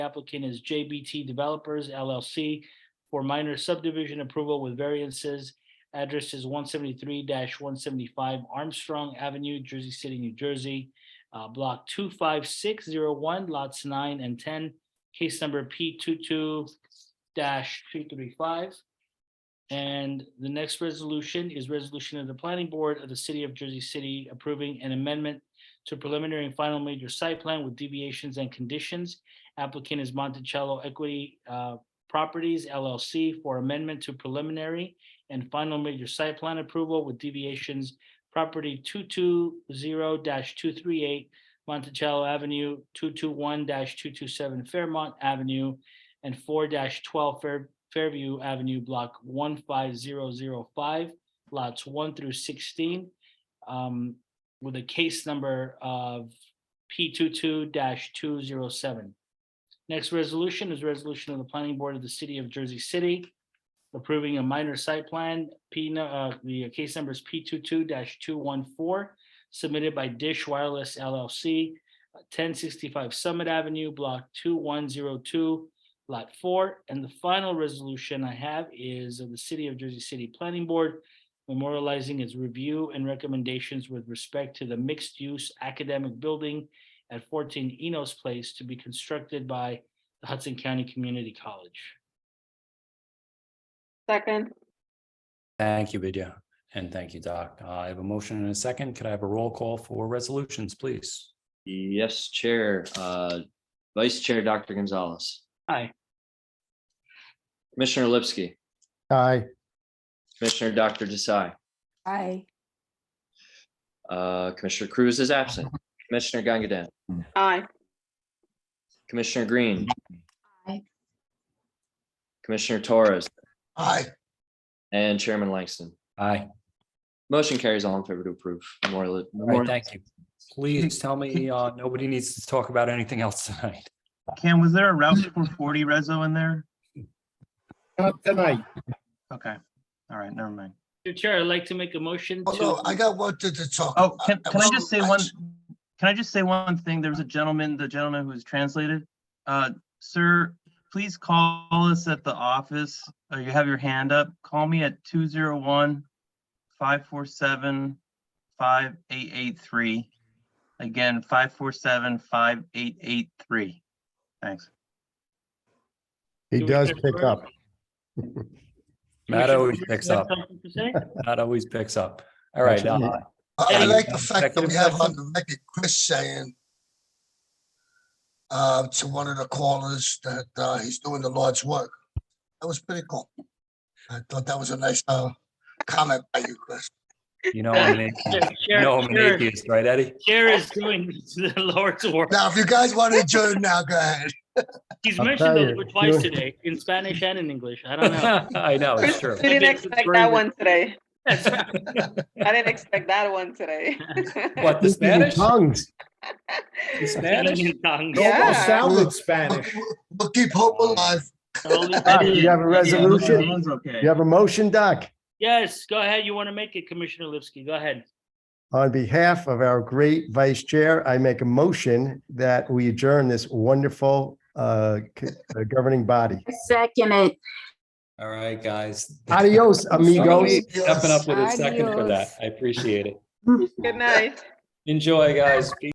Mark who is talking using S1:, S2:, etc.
S1: applicant is JBT Developers LLC for minor subdivision approval with variances. Address is one seventy-three one seventy-five Armstrong Avenue, Jersey City, New Jersey. uh, block two five six zero one, lots nine and ten, case number P 22 two three five. And the next resolution is resolution of the planning board of the city of Jersey City approving an amendment to preliminary and final major site plan with deviations and conditions applicant is Monticello Equity uh, Properties LLC for amendment to preliminary and final major site plan approval with deviations property two-two-zero two-three-eight Monticello Avenue, two-two-one two-two-seven Fairmont Avenue, and four twelve Fairview Avenue, block one-five-zero-zero-five, lots one through sixteen, um, with a case number of P two-two two-zero-seven. Next resolution is resolution of the planning board of the city of Jersey City approving a minor site plan, P, nu- uh, the case number is P 22 two one four submitted by Dish Wireless LLC, ten sixty-five Summit Avenue, block two one zero two, lot four. And the final resolution I have is of the city of Jersey City Planning Board memorializing its review and recommendations with respect to the mixed-use academic building at fourteen Enos Place to be constructed by the Hudson County Community College.
S2: Second,
S3: Thank you, Vidya, and thank you, Doc. Uh, I have a motion and a second. Could I have a roll call for resolutions, please?
S4: Yes, Chair. Uh, Vice Chair, Dr. Gonzalez.
S1: Aye.
S4: Commissioner Lipsky,
S5: Aye,
S4: Commissioner Dr. Desai,
S6: Aye.
S4: uh, Commissioner Cruz is absent, Commissioner Gangadan,
S2: aye,
S4: Commissioner Green.
S6: Aye.
S4: Commissioner Torres. Aye. And Chairman Langston.
S3: Aye,
S4: Motion carries all in favor to approve. Memorial-
S3: all right, thank you. Please tell me, uh, nobody needs to talk about anything else tonight.
S7: Cam, was there a Route four forty reso in there?
S5: not tonight.
S7: Okay, all right, never mind.
S1: Mr. Chair, I'd like to make a motion
S8: Oh, no,
S1: to,
S8: I got one thing to talk.
S7: Oh,
S8: about.
S7: can, can I just say one,
S8: Well,
S7: can I just say one thing? There was a gentleman, the gentleman who was translated. Uh, sir, please call us at the office. Uh, you have your hand up. Call me at 201 547 5883. Again, 547-5883. Thanks.
S5: He
S1: Do we
S5: does
S1: have
S5: pick
S1: further-
S5: up.
S3: Matt always picks
S1: You have
S3: up,
S1: something to say?
S3: Matt always picks up. All right,
S5: Actually,
S3: uh,
S8: I I like
S3: Yeah.
S8: the fact that we have on the record Chris saying uh, to one of the callers that uh, he's doing the Lord's work. That was pretty cool. I thought that was a nice uh, comment by you, Chris.
S3: you know, I'm an atheist. you know, I'm an
S1: Chair- Chair-
S3: atheist, right, Eddie?
S1: Chair is doing the Lord's work.
S8: Now, if you guys want to adjourn now, go ahead.
S1: He's
S5: I'll
S1: mentioned
S5: tell
S1: it
S5: you,
S1: twice
S5: you're-
S1: today, in Spanish and in English. I don't know.
S3: I know, it's true.
S2: we didn't expect that one today. I didn't expect that one today.
S3: What, the
S5: Speaking in
S3: Spanish?
S5: Tongues.
S3: The Spanish?
S2: Yeah.
S5: sounded
S8: Spanish. We'll keep hope alive.
S5: Doc, Ah, You have a resolution?
S7: Everyone's okay.
S5: You have a motion, Doc?
S1: Yes, go ahead. You want to make it, Commissioner Lipsky. Go ahead.
S5: On behalf of our great vice chair, I make a motion that we adjourn this wonderful uh, c- uh, governing body.
S6: Second it.
S3: All right, guys.
S5: Adios, amigos.
S3: Stepping up with a second for that.
S6: Adios.
S3: I appreciate it.
S2: Good night.
S3: Enjoy, guys. Be